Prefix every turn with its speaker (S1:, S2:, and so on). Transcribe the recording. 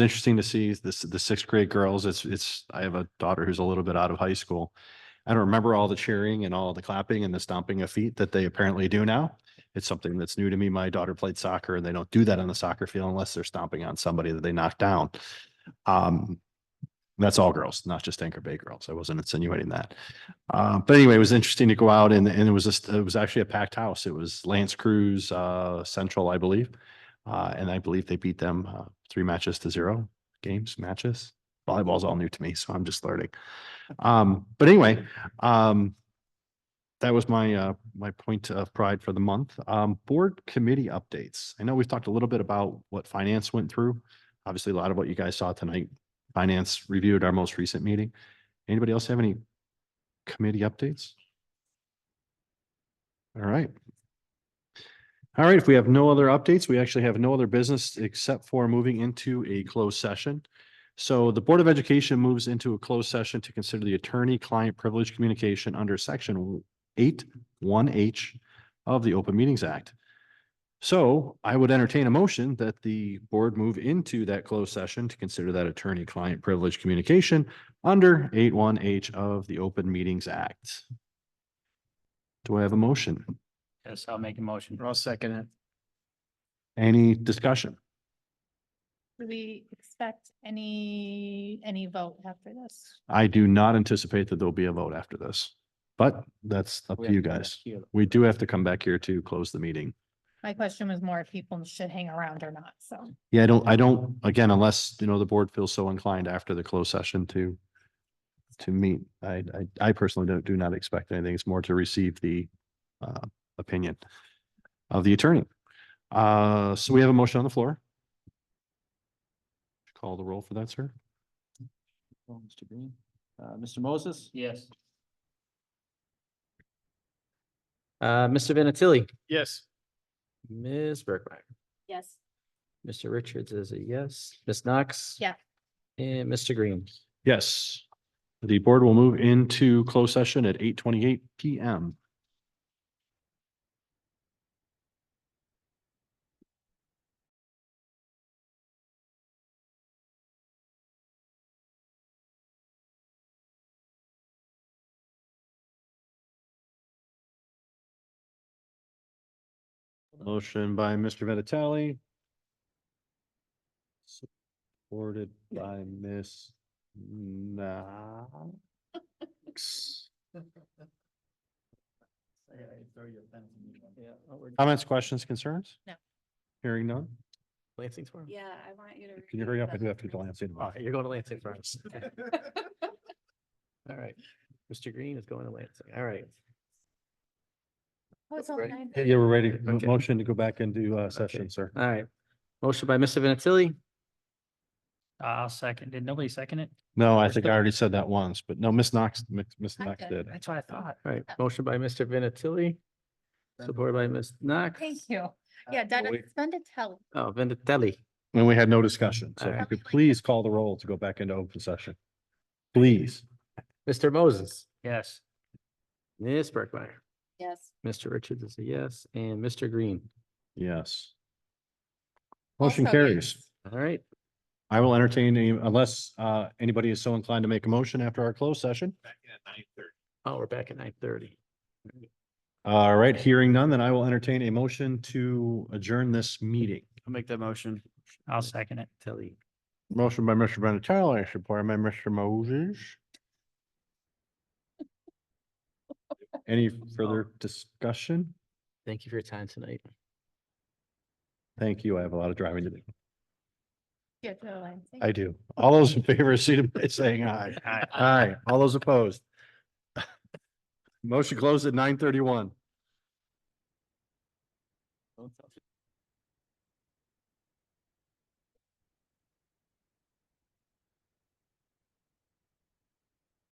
S1: interesting to see this, the sixth grade girls. It's, it's, I have a daughter who's a little bit out of high school. I don't remember all the cheering and all the clapping and the stomping of feet that they apparently do now. It's something that's new to me. My daughter played soccer and they don't do that on the soccer field unless they're stomping on somebody that they knocked down. Um, that's all girls, not just Anchor Bay girls. I wasn't insinuating that. Uh, but anyway, it was interesting to go out and, and it was just, it was actually a packed house. It was Lance Cruz, uh, Central, I believe. Uh, and I believe they beat them, uh, three matches to zero games, matches. Volleyball's all new to me, so I'm just learning. Um, but anyway, um, that was my, uh, my point of pride for the month. Um, board committee updates. I know we've talked a little bit about what finance went through. Obviously, a lot of what you guys saw tonight, finance reviewed our most recent meeting. Anybody else have any committee updates? All right. All right, if we have no other updates, we actually have no other business except for moving into a closed session. So the Board of Education moves into a closed session to consider the attorney-client privilege communication under section eight one H of the Open Meetings Act. So I would entertain a motion that the board move into that closed session to consider that attorney-client privilege communication under eight one H of the Open Meetings Act. Do I have a motion?
S2: Yes, I'll make a motion. I'll second it.
S1: Any discussion?
S3: Do we expect any, any vote after this?
S1: I do not anticipate that there'll be a vote after this, but that's up to you guys. We do have to come back here to close the meeting.
S3: My question was more if people should hang around or not, so.
S1: Yeah, I don't, I don't, again, unless, you know, the board feels so inclined after the closed session to to meet, I, I, I personally don't, do not expect anything. It's more to receive the uh, opinion of the attorney. Uh, so we have a motion on the floor. Call the roll for that, sir.
S2: Mr. Green, uh, Mr. Moses? Yes.
S4: Uh, Mr. Vinatieri,
S2: Yes.
S4: Ms. Bergmeyer,
S3: Yes.
S4: Mr. Richards is a yes, Ms. Knox.
S3: Yeah.
S4: And Mr. Green.
S1: Yes. The board will move into closed session at eight twenty-eight PM. Motion by Mr. Vinatelli. Supported by Ms. Knox. Comments, questions, concerns?
S3: No.
S1: Hearing none?
S4: Lansing tomorrow.
S5: Yeah, I want you to.
S1: Can you hurry up? I do have to glance in.
S4: All right, Oh, you're going to Lansing first. All right, Mr. Green is going to Lansing. All right,
S3: Oh,
S4: Ready?
S1: Yeah, Yeah, we're ready. Mo-
S4: Okay.
S1: Motion to go back into uh session,
S4: Okay.
S1: sir.
S4: all right. Motion by Mr. Vinatieri,
S2: I'll second. Did nobody second it?
S1: No, I think I already said that once, but no, Ms. Knox, Mi- Ms.
S3: I
S1: Knox
S3: did.
S1: did.
S2: That's what I thought.
S4: all right, motion by Mr. Vinatieri, supported by Ms. Knox.
S3: Thank you. Yeah, Dennis,
S1: Uh, wait.
S3: spend a tell.
S4: Oh, Vinatelli,
S1: And we had no discussion. So if you
S4: Alright.
S1: could please call the roll to go back into open session. Please.
S4: Mr. Moses,
S2: Yes.
S4: Ms. Bergmeyer,
S5: Yes.
S4: Mr. Richards is a yes, and Mr. Green.
S1: Yes. Motion
S3: Also,
S1: carries.
S3: yes.
S4: All right,
S1: I will entertain any, unless uh anybody is so inclined to make a motion after our closed session.
S4: oh, we're back at nine thirty.
S1: All right, hearing none, then I will entertain a motion to adjourn this meeting.
S2: I'll make that motion. I'll second it.
S4: Telly,
S1: Motion by Mr. Vinatieri, supported by Mr. Moses. Any further discussion?
S4: thank you for your time tonight.
S1: Thank you. I have a lot of driving to do.
S3: Yeah, Joe, I think.
S1: I do. All those in favor, see by saying aye.
S2: Aye.
S1: Aye. All those opposed. Motion closed at nine thirty-one.